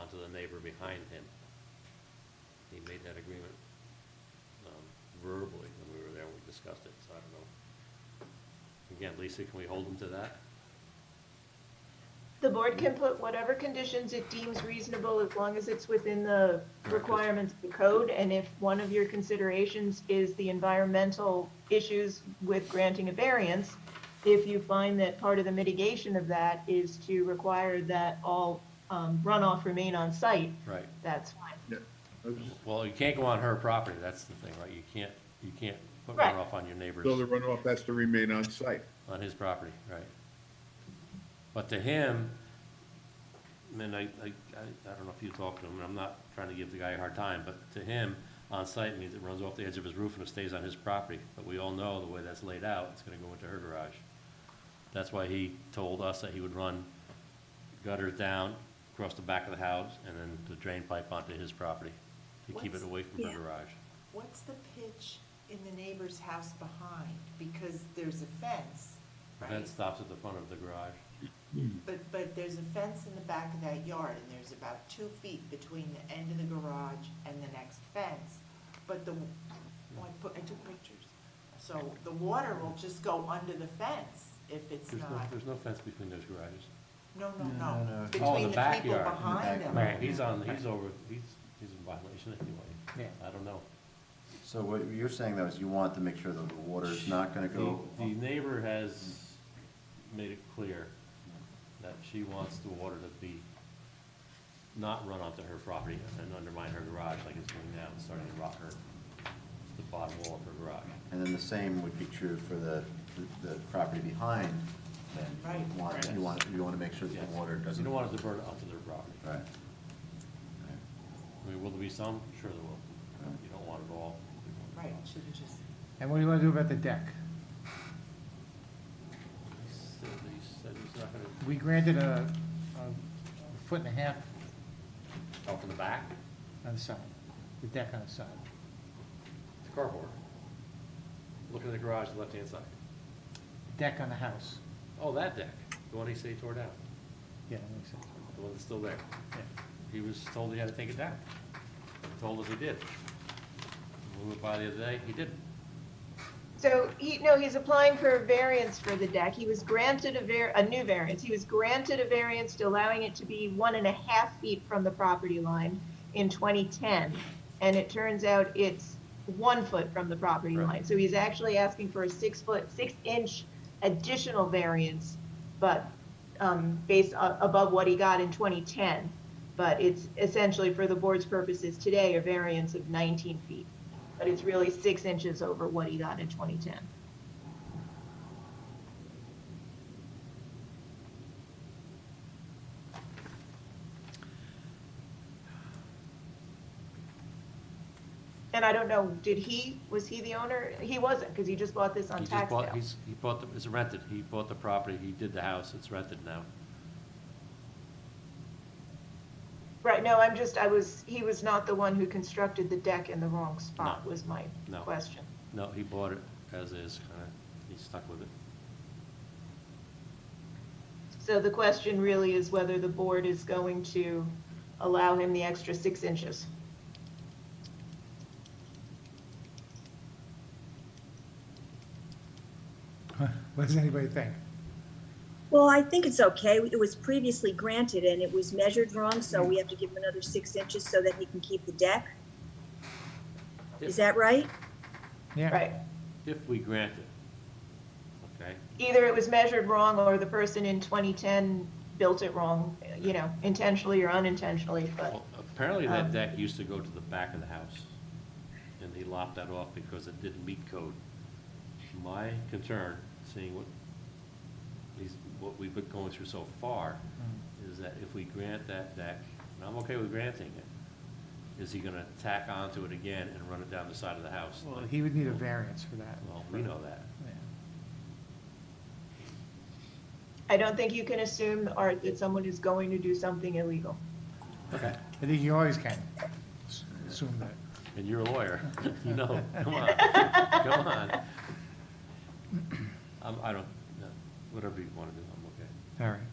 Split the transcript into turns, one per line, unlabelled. out to the neighbor behind him. He made that agreement um, verbally when we were there, we discussed it, so I don't know. Again, Lisa, can we hold him to that?
The board can put whatever conditions it deems reasonable as long as it's within the requirements of the code. And if one of your considerations is the environmental issues with granting a variance, if you find that part of the mitigation of that is to require that all um, runoff remain on site,
Right.
that's fine.
I was just-
Well, you can't go on her property, that's the thing, right? You can't, you can't put
Right.
runoff on your neighbor's,
So the runoff has to remain on site.
on his property, right? But to him, I mean, I, I, I I don't know if you talked to him, and I'm not trying to give the guy a hard time, but to him, on-site means it runs off the edge of his roof and it stays on his property. But we all know the way that's laid out, it's gonna go into her garage. That's why he told us that he would run gutters down across the back of the house and then the drain pipe onto his property to keep it
What's-
away from her
yeah.
garage.
What's the pitch in the neighbor's house behind? Because there's a fence,
The
right?
fence stops at the front of the garage.
But, but there's a fence in the back of that yard, and there's about two feet between the end of the garage and the next fence. But the, oh, I put, I took pictures. So the water will just go under the fence if it's
There's no,
not,
there's no fence between those garages.
no, no,
No,
no.
no, no.
Oh, in
Between
the
the people
backyard, in the
behind them.
backyard. Right.
He's on, he's over, he's, he's in violation anyway.
Yeah.
I don't know.
So what you're saying though is you want to make sure that the water is not gonna go.
The the neighbor has made it clear that she wants the water to be, not run onto her property and undermine her garage like it's doing now, and starting to rot her, the bottom wall of her garage.
And then the same would be true for the, the- the property behind then.
Right,
You want,
right.
you want, you wanna make sure that
Yes.
the water doesn't.
You don't want it to burn up to their property.
Right. Right.
I mean, will there be some? Sure there will. You don't want it all.
Right, shouldn't just,
And what do you want to do about the deck?
He said he said he's not gonna,
We granted a, a foot and a half
oh, from the back?
on the side, the deck on the side.
It's carport. Looking at the garage, the left-hand side.
Deck on the house.
Oh, that deck, the one he said he tore down,
Yeah, that makes sense.
the one that's still there.
Yeah.
He was told he had to take it down. He Told us he did. We went by the other day, he didn't.
So he, no, he's applying for a variance for the deck. He was granted a var, a new variance. He was granted a variance to allowing it to be one and a half feet from the property line in 2010. And it turns out it's one foot from the property
Right.
line. So he's actually asking for a six foot, six inch additional variance, but, um, based a- above what he got in 2010. But it's essentially for the board's purposes today, a variance of 19 feet but it's really six inches over what he got in 2010. And I don't know, did he, was he the owner? He wasn't, because he just bought this on
He just
tax
bought,
sale.
he's, he bought, the- it's rented, he bought the property, he did the house, it's rented now.
Right, no, I'm just, I was, he was not the one who constructed the deck in the wrong spot,
No.
was my
No.
question.
No, he bought it as is, kinda, he's stuck with it.
So the question really is whether the board is going to allow him the extra six inches.
What does anybody think?
Well, I think it's okay. It was previously granted and it was measured wrong, so we have to give him another six inches so that he can keep the deck. Is that right?
Yeah.
Right.
If we grant it, okay?
Either it was measured wrong or the person in 2010 built it wrong, you know, intentionally or unintentionally, but
Well, apparently that
Um,
deck used to go to the back of the house, and he lopped that off because it didn't meet code. My concern, seeing what, these, what we've been going through so far,
Mm.
is that if we grant that deck, and I'm okay with granting it, is he gonna tack onto it again and run it down the side of the house?
Well,
Like,
he would need a variance for that.
Well, we know that.
Yeah.
I don't think you can assume, Art, that someone is going to do something illegal.
Okay.
I think you always can s- assume that.
And you're a lawyer, you know, come on, come on. I'm, I don't, no, whatever you wanna do, I'm okay.
All right.